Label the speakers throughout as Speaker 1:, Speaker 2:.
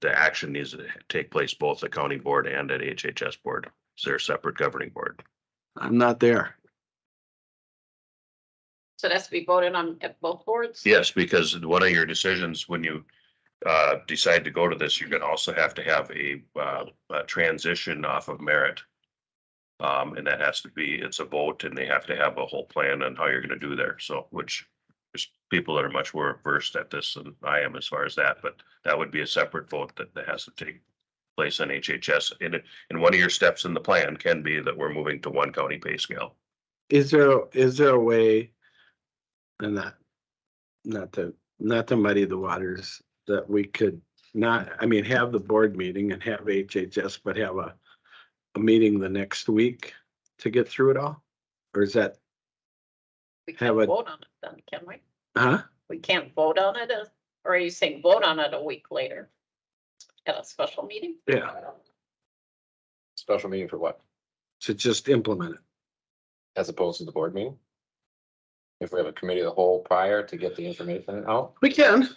Speaker 1: the action needs to take place both the county board and at HHS board. It's their separate governing board.
Speaker 2: I'm not there.
Speaker 3: So that's to be voted on at both boards?
Speaker 1: Yes, because one of your decisions, when you uh, decide to go to this, you're gonna also have to have a, uh, a transition off of merit. Um, and that has to be, it's a vote and they have to have a whole plan on how you're gonna do there. So, which there's people that are much more versed at this than I am as far as that, but that would be a separate vote that that has to take place on HHS. And, it- and one of your steps in the plan can be that we're moving to one county pay scale.
Speaker 2: Is there, is there a way? And not, not to, not to muddy the waters, that we could not, I mean, have the board meeting and have HHS, but have a. A meeting the next week to get through it all? Or is that,
Speaker 3: We
Speaker 2: Have
Speaker 3: can't
Speaker 2: a-
Speaker 3: vote on it then, can we?
Speaker 2: huh?
Speaker 3: We can't vote on it, as- or are you saying vote on it a week later? At a special meeting?
Speaker 2: Yeah.
Speaker 4: Special meeting for what?
Speaker 2: To just implement it.
Speaker 4: As opposed to the board meeting? If we have a committee of the whole prior to get the information out?
Speaker 2: We can.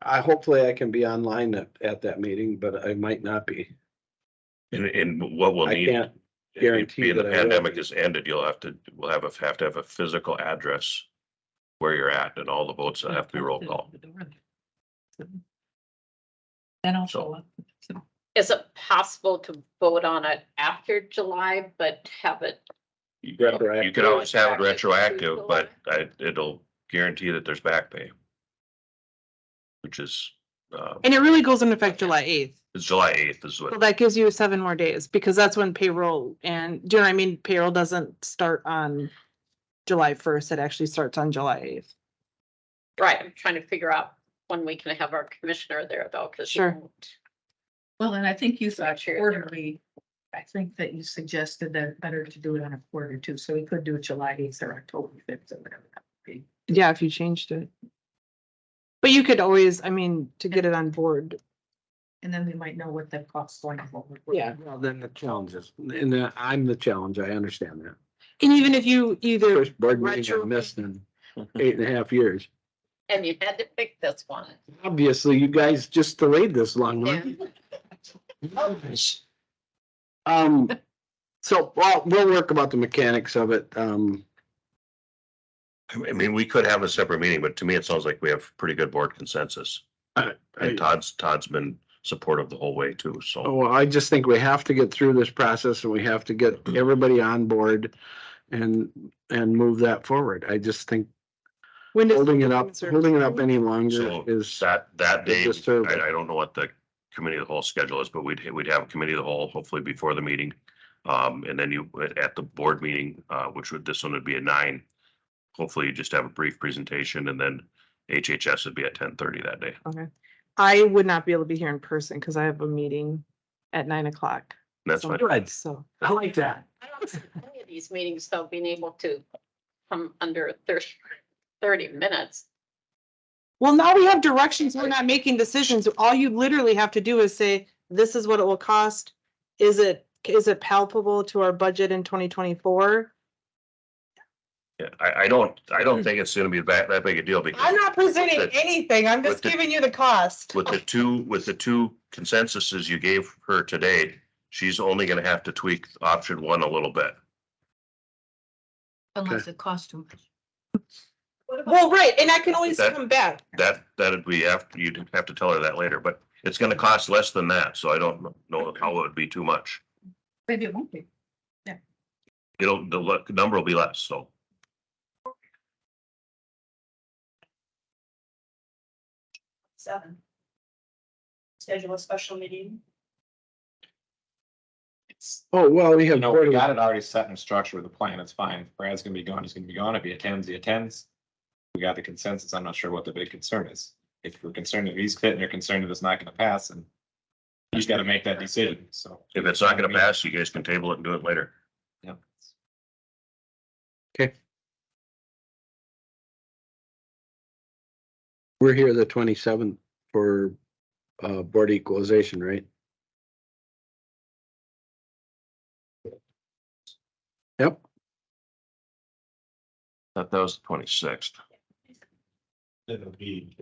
Speaker 2: I, hopefully I can be online at, at that meeting, but I might not be.
Speaker 1: And, and what we'll
Speaker 2: I
Speaker 1: need.
Speaker 2: can't
Speaker 1: if you-
Speaker 2: guarantee
Speaker 1: being the
Speaker 2: that I will.
Speaker 1: Pandemic is ended, you'll have to, we'll have, a- have to have a physical address where you're at and all the votes that have to be roll call.
Speaker 5: Then
Speaker 1: So-
Speaker 5: also. so-
Speaker 3: Is it possible to vote on it after July, but have it?
Speaker 1: You
Speaker 2: Retroactive.
Speaker 1: you could always have it
Speaker 3: Retroactive to
Speaker 1: retroactive, but I, it'll guarantee that there's back pay. Which is, uh,
Speaker 6: And it really goes into effect July eighth.
Speaker 1: it's July eighth is
Speaker 6: So
Speaker 1: what,
Speaker 6: that gives you seven more days because that's when payroll and, do you know what I mean? Payroll doesn't start on July first. It actually starts on July eighth.
Speaker 3: Right, I'm trying to figure out when we can have our commissioner there though, because.
Speaker 6: Sure.
Speaker 5: Well, and I think you thought
Speaker 3: Sure.
Speaker 5: quarterly, I think that you suggested that better to do it on a quarter too, so we could do it July eighth or October fifth or whatever. that would be.
Speaker 6: Yeah, if you changed it. But you could always, I mean, to get it on board.
Speaker 5: And then we might know what the cost going forward.
Speaker 2: Well, then the challenges, and uh, I'm the challenge, I understand that.
Speaker 6: And even if you either,
Speaker 2: First board meeting I
Speaker 6: retro-
Speaker 2: missed in eight and a half years.
Speaker 3: And you had to pick this one.
Speaker 2: Obviously, you guys just delayed this long
Speaker 3: Yeah.
Speaker 2: one. Um, so, well, we'll work about the mechanics of it. Um,
Speaker 1: I mean, we could have a separate meeting, but to me, it sounds like we have pretty good board consensus.
Speaker 2: I-
Speaker 1: And Todd's, Todd's been supportive the whole way too, so.
Speaker 2: well, I just think we have to get through this process and we have to get everybody on board and, and move that forward. I just think
Speaker 6: when does,
Speaker 2: holding it up, holding it up any longer
Speaker 1: So
Speaker 2: is,
Speaker 1: that, that
Speaker 2: It's
Speaker 1: day,
Speaker 2: just terrible.
Speaker 1: I, I don't know what the committee of the whole schedule is, but we'd, we'd have a committee of the whole hopefully before the meeting. Um, and then you, at the board meeting, uh, which would, this one would be at nine. Hopefully you just have a brief presentation and then HHS would be at ten thirty that day.
Speaker 6: I would not be able to be here in person because I have a meeting at nine o'clock.
Speaker 1: And That's fine.
Speaker 2: Good.
Speaker 6: Right. So.
Speaker 2: I like that.
Speaker 3: I don't see any of these meetings, though, being able to come under thirty, thirty minutes.
Speaker 6: Well, now we have directions. We're not making decisions. All you literally have to do is say, this is what it will cost. Is it, is it palpable to our budget in twenty twenty-four?
Speaker 1: Yeah, I, I don't, I don't think it's gonna be that, that big a deal because.
Speaker 6: I'm not presenting
Speaker 1: But-
Speaker 6: anything. I'm
Speaker 1: but
Speaker 6: just
Speaker 1: the-
Speaker 6: giving you the cost.
Speaker 1: With the two, with the two consensuses you gave her today, she's only gonna have to tweak option one a little bit.
Speaker 5: Unless it costs too much.
Speaker 6: Well, right, and I can always
Speaker 1: That-
Speaker 6: come back.
Speaker 1: That, that'd be after, you'd have to tell her that later, but it's gonna cost less than that, so I don't know how it would be too much.
Speaker 5: Maybe it won't be.
Speaker 1: It'll, the lu- number will be less, so.
Speaker 7: Seven. Schedule a special meeting.
Speaker 2: Oh, well, we have.
Speaker 4: No, we
Speaker 2: board-
Speaker 4: got it already set and structured with the plan. It's fine. Brad's gonna be gone. He's gonna be gone. If he attends, he attends. We got the consensus. I'm not sure what the big concern is. If you're concerned that he's fit and you're concerned that it's not gonna pass and he's gotta make that decision, so.
Speaker 1: If it's not gonna pass, you guys can table it and do it later.
Speaker 4: Yeah.
Speaker 2: We're here the twenty-seventh for, uh, board equalization, right? Yep,
Speaker 1: That, that was the twenty-sixth.
Speaker 4: It'll be